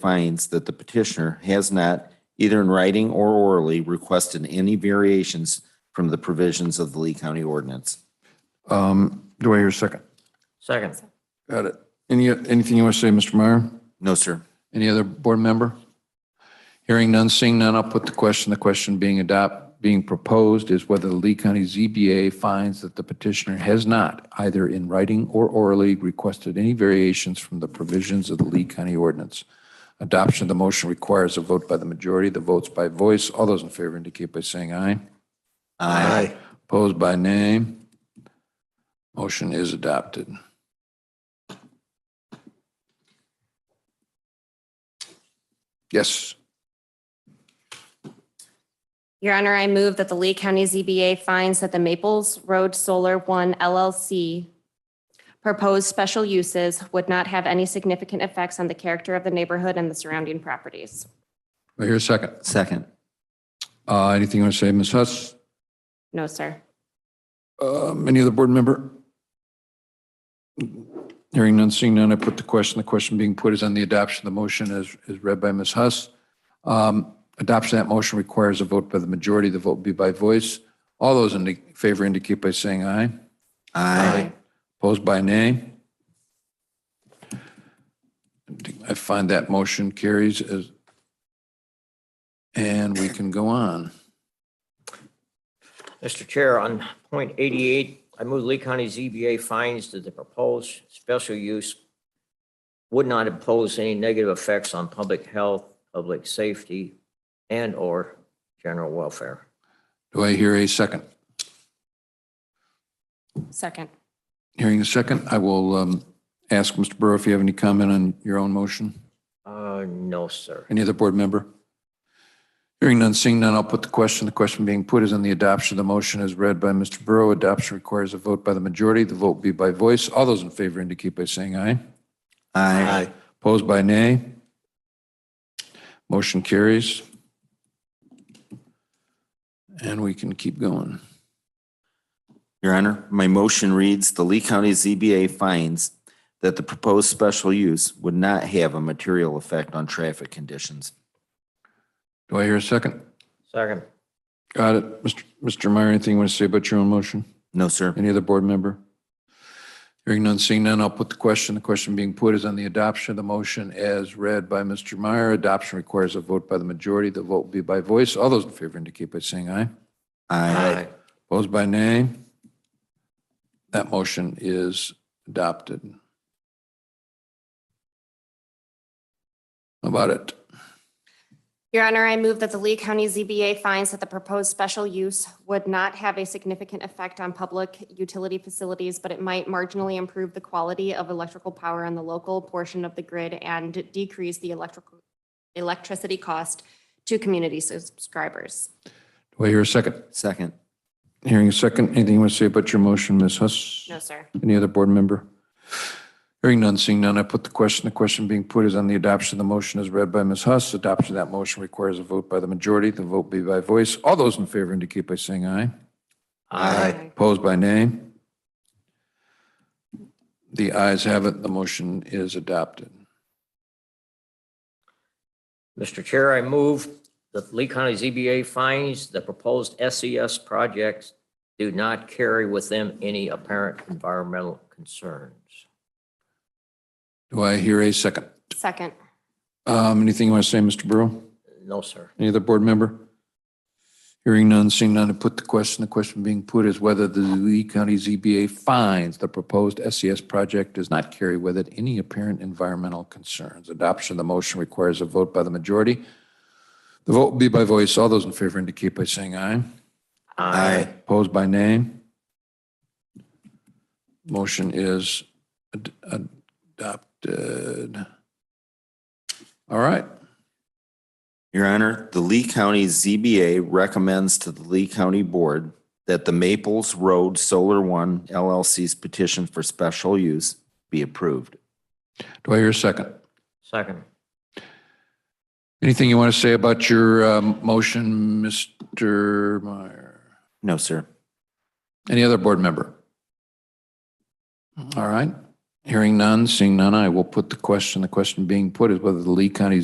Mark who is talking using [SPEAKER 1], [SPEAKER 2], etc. [SPEAKER 1] finds that the petitioner has not, either in writing or orally, requested any variations from the provisions of the Lee County ordinance.
[SPEAKER 2] Um, Do I hear a second?
[SPEAKER 3] Second.
[SPEAKER 2] Got it. Any, anything you want to say, Mr. Meyer?
[SPEAKER 1] No, sir.
[SPEAKER 2] Any other board member? Hearing none, seeing none, I'll put the question. The question being adopt, being proposed is whether the Lee County ZBA finds that the petitioner has not, either in writing or orally, requested any variations from the provisions of the Lee County ordinance. Adoption of the motion requires a vote by the majority, the votes by voice. All those in favor indicate by saying aye.
[SPEAKER 1] Aye.
[SPEAKER 2] Opposed by name. Motion is adopted. Yes,
[SPEAKER 4] Your Honor, I move that the Lee County ZBA finds that the Maples Road Solar One LLC proposed special uses would not have any significant effects on the character of the neighborhood and the surrounding properties.
[SPEAKER 2] I hear a second.
[SPEAKER 1] Second.
[SPEAKER 2] Uh, Anything you want to say, Ms. Huss?
[SPEAKER 4] No, sir.
[SPEAKER 2] Um, Any other board member? Hearing none, seeing none, I put the question. The question being put is on the adoption of the motion as, as read by Ms. Huss. Um, Adoption of that motion requires a vote by the majority. The vote will be by voice. All those in favor indicate by saying aye.
[SPEAKER 1] Aye.
[SPEAKER 2] Opposed by nay? I find that motion carries as, and we can go on.
[SPEAKER 3] Mr. Chair, on point eighty-eight, I move Lee County ZBA finds that the proposed special use would not impose any negative effects on public health, public safety, and/or general welfare.
[SPEAKER 2] Do I hear a second?
[SPEAKER 4] Second.
[SPEAKER 2] Hearing a second, I will um, ask Mr. Burrow if you have any comment on your own motion.
[SPEAKER 3] Uh, no, sir.
[SPEAKER 2] Any other board member? Hearing none, seeing none, I'll put the question. The question being put is on the adoption of the motion as read by Mr. Burrow. Adoption requires a vote by the majority. The vote be by voice. All those in favor indicate by saying aye.
[SPEAKER 1] Aye.
[SPEAKER 2] Opposed by nay? Motion carries. And we can keep going.
[SPEAKER 1] Your Honor, my motion reads, the Lee County ZBA finds that the proposed special use would not have a material effect on traffic conditions.
[SPEAKER 2] Do I hear a second?
[SPEAKER 3] Second.
[SPEAKER 2] Got it. Mr. Mr. Meyer, anything you want to say about your own motion?
[SPEAKER 1] No, sir.
[SPEAKER 2] Any other board member? Hearing none, seeing none, I'll put the question. The question being put is on the adoption of the motion as read by Mr. Meyer. Adoption requires a vote by the majority. The vote will be by voice. All those in favor indicate by saying aye.
[SPEAKER 1] Aye.
[SPEAKER 2] Opposed by nay? That motion is adopted. How about it?
[SPEAKER 4] Your Honor, I move that the Lee County ZBA finds that the proposed special use would not have a significant effect on public utility facilities, but it might marginally improve the quality of electrical power on the local portion of the grid and decrease the electrical, electricity cost to community subscribers.
[SPEAKER 2] Do I hear a second?
[SPEAKER 1] Second.
[SPEAKER 2] Hearing a second. Anything you want to say about your motion, Ms. Huss?
[SPEAKER 4] No, sir.
[SPEAKER 2] Any other board member? Hearing none, seeing none, I put the question. The question being put is on the adoption of the motion as read by Ms. Huss. Adoption of that motion requires a vote by the majority. The vote be by voice. All those in favor indicate by saying aye.
[SPEAKER 1] Aye.
[SPEAKER 2] Opposed by nay? The ayes have it. The motion is adopted.
[SPEAKER 3] Mr. Chair, I move that Lee County ZBA finds the proposed SES projects do not carry with them any apparent environmental concerns.
[SPEAKER 2] Do I hear a second?
[SPEAKER 4] Second.
[SPEAKER 2] Um, Anything you want to say, Mr. Burrow?
[SPEAKER 3] No, sir.
[SPEAKER 2] Any other board member? Hearing none, seeing none, I put the question. The question being put is whether the Lee County ZBA finds the proposed SES project does not carry with it any apparent environmental concerns. Adoption of the motion requires a vote by the majority. The vote will be by voice. All those in favor indicate by saying aye. Opposed by name? Motion is ad- adopted. All right.
[SPEAKER 1] Your Honor, the Lee County ZBA recommends to the Lee County Board that the Maples Road Solar One LLC's petition for special use be approved.
[SPEAKER 2] Do I hear a second?
[SPEAKER 3] Second.
[SPEAKER 2] Anything you want to say about your um, motion, Mr. Meyer?
[SPEAKER 1] No, sir.
[SPEAKER 2] Any other board member? All right. Hearing none, seeing none, I will put the question. The question being put is whether the Lee County